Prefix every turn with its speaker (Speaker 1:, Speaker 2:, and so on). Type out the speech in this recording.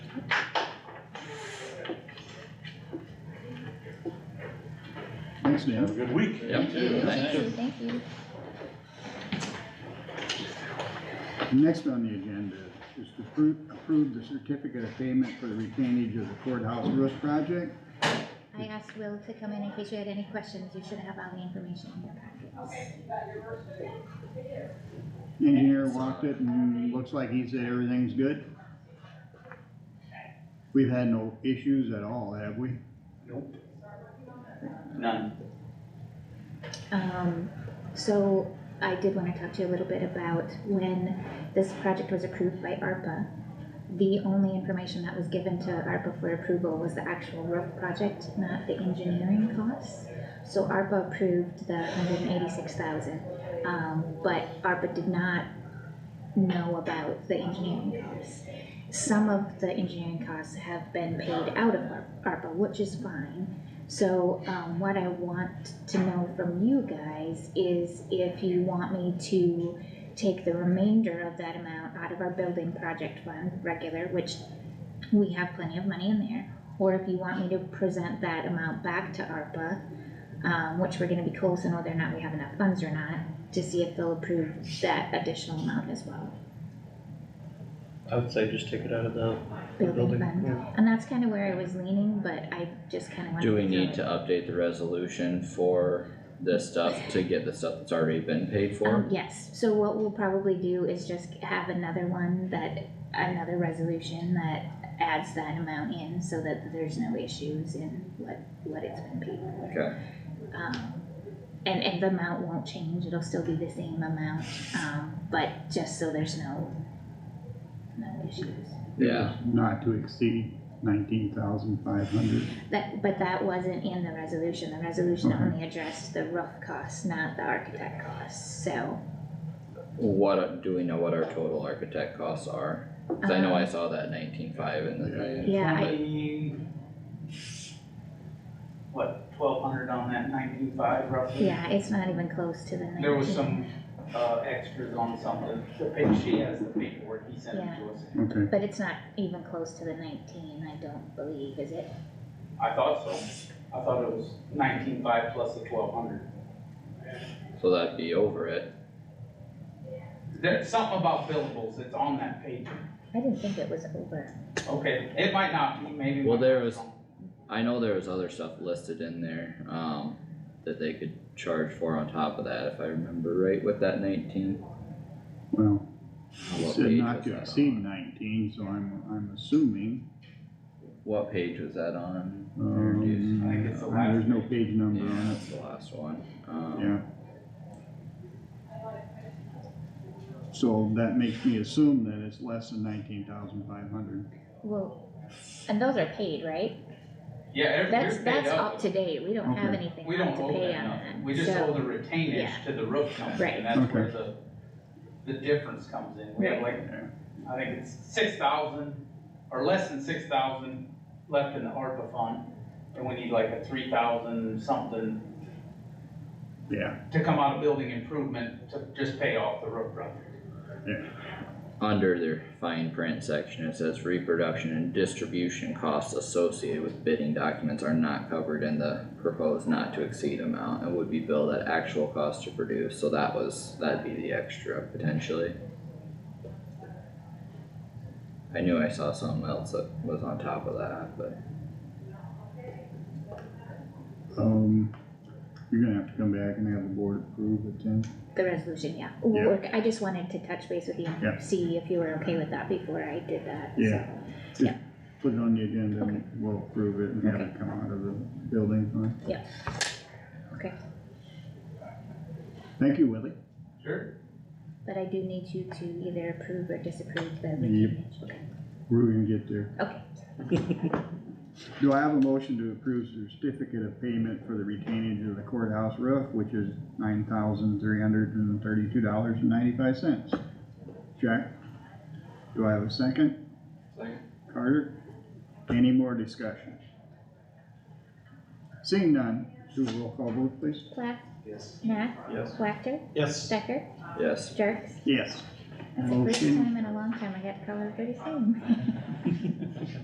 Speaker 1: Thanks,
Speaker 2: Have a
Speaker 1: Dan.
Speaker 2: good week.
Speaker 3: Yep.
Speaker 4: Thank
Speaker 3: Thanks.
Speaker 4: you, thank you.
Speaker 1: Next on the agenda is to approve, approve the certificate of payment for the retainage of the courthouse roof project.
Speaker 4: I asked Will to come in in case you had any questions, you should have all the information in your packets.
Speaker 1: Engineer walked it and looks like he said everything's good. We've had no issues at all, have we?
Speaker 5: None.
Speaker 4: Um, so I did wanna talk to you a little bit about when this project was approved by ARPA. The only information that was given to ARPA for approval was the actual roof project, not the engineering costs. So ARPA approved the hundred and eighty-six thousand, um, but ARPA did not know about the engineering costs. Some of the engineering costs have been paid out of Ar- ARPA, which is fine. So, um, what I want to know from you guys is if you want me to take the remainder of that amount out of our building project fund, regular, which we have plenty of money in there, or if you want me to present that amount back to ARPA, um, which we're gonna be close on whether or not we have enough funds or not, to see if they'll approve that additional amount as well.
Speaker 6: I would say just take it out of the
Speaker 4: Building
Speaker 6: building.
Speaker 4: fund,
Speaker 6: yeah.
Speaker 4: and that's kinda where I was leaning, but I just kinda wanted to.
Speaker 3: Do we
Speaker 4: throw
Speaker 3: need
Speaker 4: it
Speaker 3: to update the resolution for this stuff to get the stuff that's already been paid
Speaker 4: Um,
Speaker 3: for?
Speaker 4: yes, so what we'll probably do is just have another one that, another resolution that adds that amount in so that there's no issues in what, what it's been paid for.
Speaker 3: Okay.
Speaker 4: Um, and, and the amount won't change, it'll still be the same amount, um, but just so there's no, no issues.
Speaker 3: Yeah.
Speaker 1: Not to exceed nineteen thousand five hundred.
Speaker 4: That, but that wasn't in the resolution, the resolution
Speaker 5: Uh-huh.
Speaker 1: Okay.
Speaker 4: only addressed the roof costs, not the architect costs, so.
Speaker 3: What, do we know what our total architect costs are? Cause I know I
Speaker 4: um,
Speaker 3: saw that nineteen-five in the thing.
Speaker 4: Yeah, I,
Speaker 5: Only, What, twelve hundred on that ninety-five roughly?
Speaker 4: Yeah, it's not even close to the nineteen.
Speaker 5: There was some, uh, extras on something, the pa- she has the paperwork, he sent it to us.
Speaker 1: Okay,
Speaker 4: But it's not even close to the nineteen, I don't believe, is it?
Speaker 5: I thought so, I thought it was nineteen-five plus the twelve hundred.
Speaker 3: So that'd be over it.
Speaker 5: There's something about billables, it's on that page,
Speaker 4: I didn't think it was over.
Speaker 5: okay, it might not be, maybe.
Speaker 3: Well, there
Speaker 5: was.
Speaker 3: was- I know there was other stuff listed in there, um, that they could charge for on top of that, if I remember right with that nineteen.
Speaker 1: well, it
Speaker 3: What
Speaker 1: said
Speaker 3: page
Speaker 1: not
Speaker 3: was
Speaker 1: to
Speaker 3: that
Speaker 1: exceed
Speaker 3: on?
Speaker 1: nineteen, so I'm, I'm assuming,
Speaker 3: What page was that on?
Speaker 1: um,
Speaker 5: I think it's the last
Speaker 1: there's no
Speaker 5: page.
Speaker 1: page number
Speaker 3: Yeah,
Speaker 1: on it,
Speaker 3: that's the last one, um.
Speaker 1: yeah. So that makes me assume that it's less than nineteen thousand five hundred.
Speaker 4: Well, and those are paid, right?
Speaker 5: Yeah, every,
Speaker 4: That's,
Speaker 5: we're paid
Speaker 4: that's
Speaker 5: up.
Speaker 4: up to date, we don't have
Speaker 1: Okay.
Speaker 4: anything
Speaker 5: We
Speaker 4: left
Speaker 5: don't
Speaker 4: to
Speaker 5: owe
Speaker 4: pay
Speaker 5: them
Speaker 4: on
Speaker 5: nothing,
Speaker 4: that.
Speaker 5: we just
Speaker 4: So-
Speaker 5: owe the retainage
Speaker 4: yeah.
Speaker 5: to the roof company, and
Speaker 4: Right.
Speaker 5: that's where the, the difference comes in, we have like, I think it's six thousand, or less than six thousand left in the ARPA fund, and we need like a three thousand something
Speaker 1: Yeah,
Speaker 5: to come out of building improvement to just pay off the roof project.
Speaker 3: Under their fine print section, it says reproduction and distribution costs associated with bidding documents are not covered in the proposed not to exceed amount and would be billed at actual cost to produce, so that was, that'd be the extra potentially. I knew I saw something else that was on top of that, but
Speaker 1: um, you're gonna have to come back and have the board approve it then.
Speaker 4: The resolution, yeah.
Speaker 1: Yeah.
Speaker 4: Work, I just wanted to touch base with you
Speaker 1: Yeah.
Speaker 4: and see if you were okay with that before I did that.
Speaker 1: Yeah.
Speaker 4: So, Yeah,
Speaker 1: Put it on the agenda
Speaker 4: Okay.
Speaker 1: and we'll approve it and have it come out of the building fund.
Speaker 4: Yeah. Okay.
Speaker 1: Thank you, Willie.
Speaker 5: Sure.
Speaker 4: but I do need you to either approve or disapprove the
Speaker 1: Yep.
Speaker 4: retainage, okay?
Speaker 1: We're gonna get there.
Speaker 4: Okay.
Speaker 1: Do I have a motion to approve certificate of payment for the retainage of the courthouse roof, which is nine thousand three hundred and thirty-two dollars and ninety-five cents? Jack? Do I have a second?
Speaker 5: Second.
Speaker 1: Carter? Any more discussion? Seeing none, do a roll call vote, please.
Speaker 4: Plath,
Speaker 5: Yes.
Speaker 4: Nat,
Speaker 6: Yes.
Speaker 4: Wactor,
Speaker 6: Yes.
Speaker 4: Stecker,
Speaker 3: yes,
Speaker 4: Jerks.
Speaker 1: Yes.
Speaker 4: That's the first
Speaker 1: Okay.
Speaker 4: time in a long time I got to call everybody same.